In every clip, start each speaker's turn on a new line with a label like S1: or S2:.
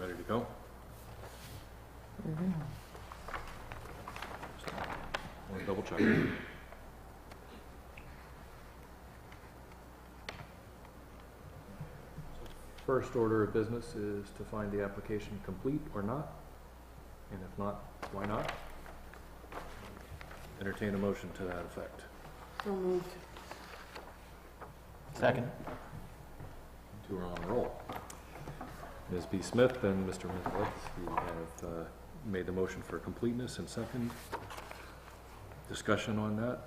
S1: you go. Want to double check. First order of business is to find the application complete or not, and if not, why not? Entertain a motion to that effect.
S2: So moved.
S3: Second.
S1: Two are on the roll. Ms. B. Smith and Mr. Mizalik, you have uh, made the motion for completeness and second. Discussion on that?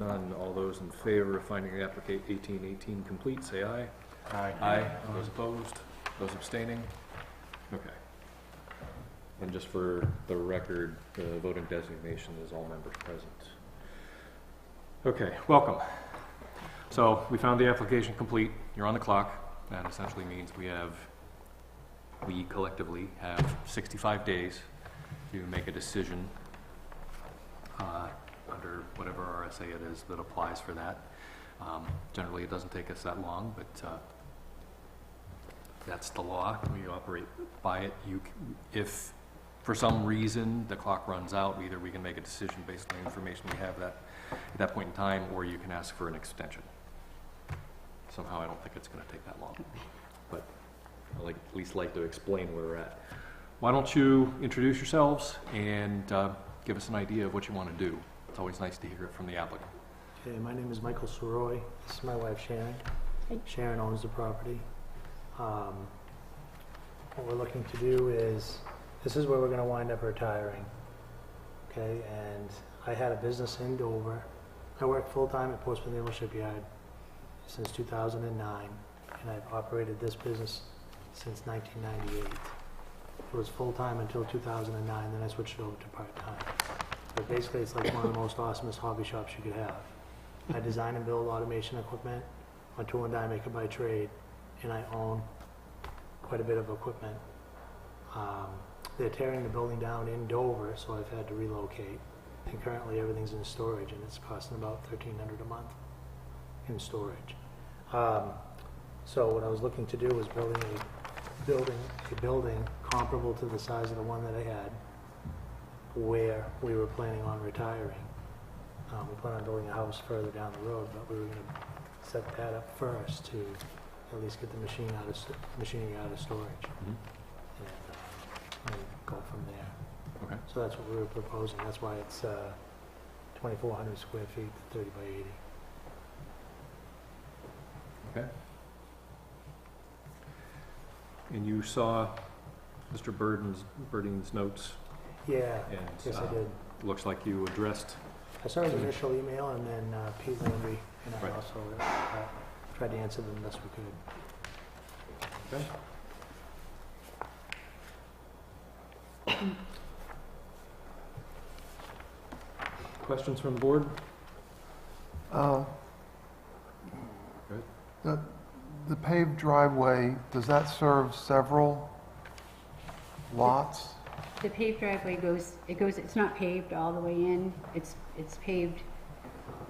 S1: None. All those in favor of finding the applicant 1818 complete, say aye. Aye. Those opposed? Those abstaining? Okay. And just for the record, the voting designation is all members present. Okay, welcome. So we found the application complete. You're on the clock. That essentially means we have, we collectively have 65 days to make a decision uh, under whatever RSA it is that applies for that. Um, Generally, it doesn't take us that long, but uh, that's the law. We operate by it. You, c- if for some reason the clock runs out, either we can make a decision based on the information we have that, at that point in time, or you can ask for an extension. Somehow, I don't think it's gonna take that long, but I like, at least like to explain where we're at. Why don't you introduce yourselves and, uh, give us an idea of what you wanna do? It's always nice to hear it from the applicant.
S3: Okay, my name is Michael Soroy. This is my wife Sharon.
S2: Hey.
S3: Sharon owns the property. Um, What we're looking to do is, this is where we're gonna wind up retiring. Okay, and I had a business in Dover. I worked full-time at Post Naval Shipyard since 2009, and I've operated this business since 1998. It was full-time until 2009, then I switched it over to part-time. But basically, it's like one of the most awesomest hobby shops you could have. I design and build automation equipment. My tool and die maker by trade, and I own quite a bit of equipment. Um, they're tearing the building down in Dover, so I've had to relocate. And currently, everything's in storage, and it's costing about thirteen hundred a month in storage. Um, so what I was looking to do was building a building, a building comparable to the size of the one that I had, where we were planning on retiring. Um, we plan on building a house further down the road, but we were gonna set that up first to at least get the machine out of, st- machinery out of storage
S1: Mhm.
S3: and, uh, and go from there.
S1: Okay.
S3: So that's what we were proposing, that's why it's, uh, twenty-four hundred square feet, thirty by eighty.
S1: And you saw Mr. Burden's, Birding's notes,
S3: Yeah,
S1: and
S3: yes, I
S1: uh,
S3: did.
S1: looks like you addressed,
S3: I saw his initial email and then uh, Pete Landry and I
S1: Right.
S3: also uh, tried to answer them best we could.
S1: questions from the board?
S4: Uh,
S1: Good.
S4: The the paved driveway, does that serve several lots?
S5: The paved driveway goes, it goes, it's not paved all the way in, it's, it's paved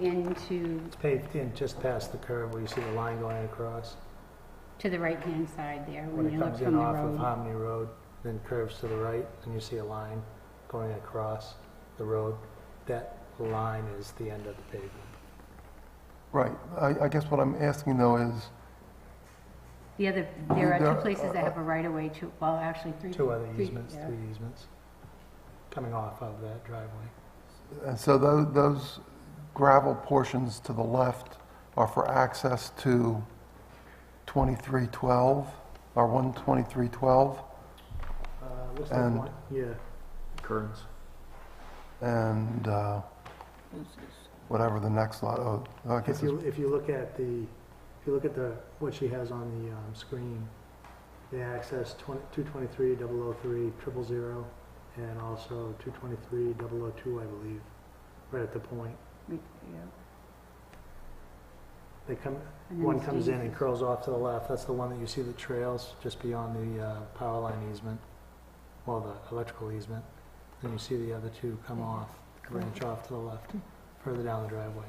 S5: into,
S3: It's paved in just past the curve where you see the line going across.
S5: to the right-hand side there,
S3: When
S5: when
S3: it
S5: you look
S3: comes
S5: from
S3: in
S5: the
S3: off of
S5: road.
S3: Harmony Road, then curves to the right, and you see a line going across the road. That line is the end of the pavement.
S4: Right, I I guess what I'm asking though is,
S5: The other, there are
S4: There-
S5: two places that have a right-of-way, two, well, actually, three.
S3: Two other
S5: three-
S3: easements,
S5: yeah.
S3: three easements, coming off of that driveway.
S4: and so tho- those gravel portions to the left are for access to 2312, or 12312,
S3: Uh, Looks like
S4: And-
S3: one, yeah.
S1: Kearns?
S4: and uh, whatever the next lot, oh, I guess
S3: If
S4: it's
S3: you, if you look at the, if you look at the, what she has on the um, screen, the access 20 223 003 triple zero, and also 223 002, I believe, right at the point.
S5: Yeah.
S3: They come,
S5: And then
S3: one
S5: it's
S3: comes in and
S5: dangerous.
S3: curls off to the left, that's the one that you see the trails just beyond the uh, power line easement, well, the electrical easement. Then you see the other two come off, branch off to the left, further down the driveway.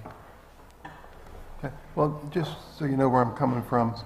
S4: Well, just so you know where I'm coming from,